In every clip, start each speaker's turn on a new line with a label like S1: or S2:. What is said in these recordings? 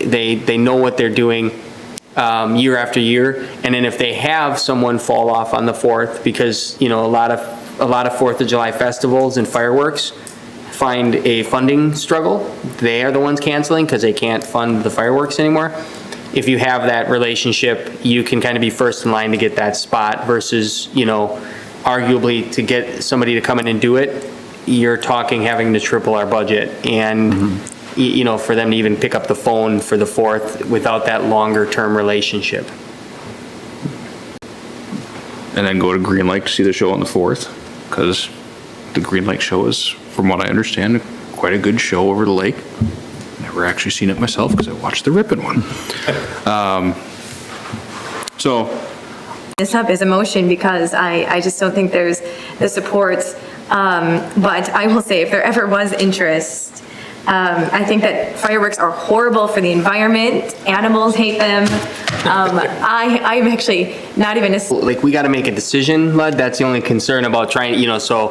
S1: they, they know what they're doing um, year after year. And then if they have someone fall off on the 4th, because, you know, a lot of, a lot of 4th of July festivals and fireworks find a funding struggle, they are the ones canceling because they can't fund the fireworks anymore. If you have that relationship, you can kind of be first in line to get that spot versus, you know, arguably to get somebody to come in and do it, you're talking having to triple our budget. And, y- you know, for them to even pick up the phone for the fourth without that longer-term relationship.
S2: and then go to Green Lake to see the show on the 4th, because the Green Lake show is, from what I understand, quite a good show over the lake. Never actually seen it myself, because I watched the Ripon one. Um, So,
S3: this up as a motion because I, I just don't think there's the support. Um, But I will say, if there ever was interest, um, I think that fireworks are horrible for the environment, animals hate them. Um, I, I'm actually not even a,
S1: Like, we got to make a decision, Lud, that's the only concern about trying, you know, so,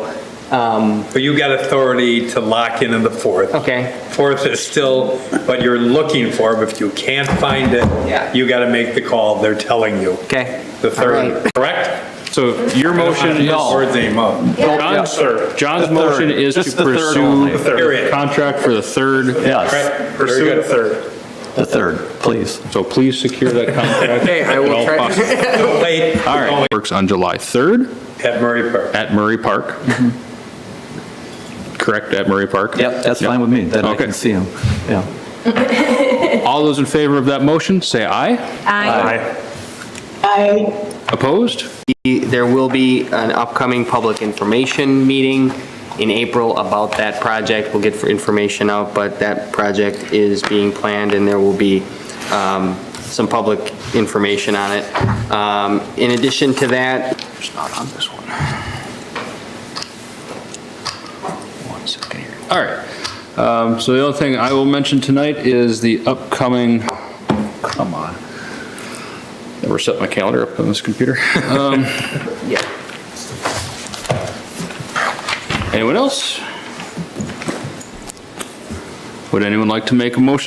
S4: But you got authority to lock in on the 4th.
S1: Okay.
S4: 4th is still what you're looking for, but if you can't find
S1: Yeah.
S4: it, you got to make the call, they're telling you.
S1: okay.
S4: The
S1: All
S4: 3rd,
S1: right.
S4: correct?
S2: so your motion is,
S4: Or they mo-
S2: John's, John's motion is to pursue
S4: The third.
S2: the contract for the third,
S4: Correct?
S5: Yes,
S4: Very
S5: pursue the
S4: good.
S5: third, the third, please.
S2: so please secure that contract. Okay, I will try.
S4: Late,
S2: All right, works on July 3rd.
S4: at Murray Park.
S2: At Murray Park? Correct, at Murray Park?
S5: Mm-hmm. Yep, that's
S2: Yep.
S5: fine with me, then I
S2: Okay.
S5: can see him, yeah.
S2: All those in favor of that motion, say aye.
S3: I,
S2: Opposed?
S1: There will be an upcoming public information meeting in April about that project. We'll get for information out, but that project is being planned and there will be um, some public information on it. Um, In addition to that,
S2: It's not on this one. One second here. All right. Um, So the other thing I will mention tonight is the upcoming, come on. Never set my calendar up on this computer. Um, Anyone else? Would anyone like to make a motion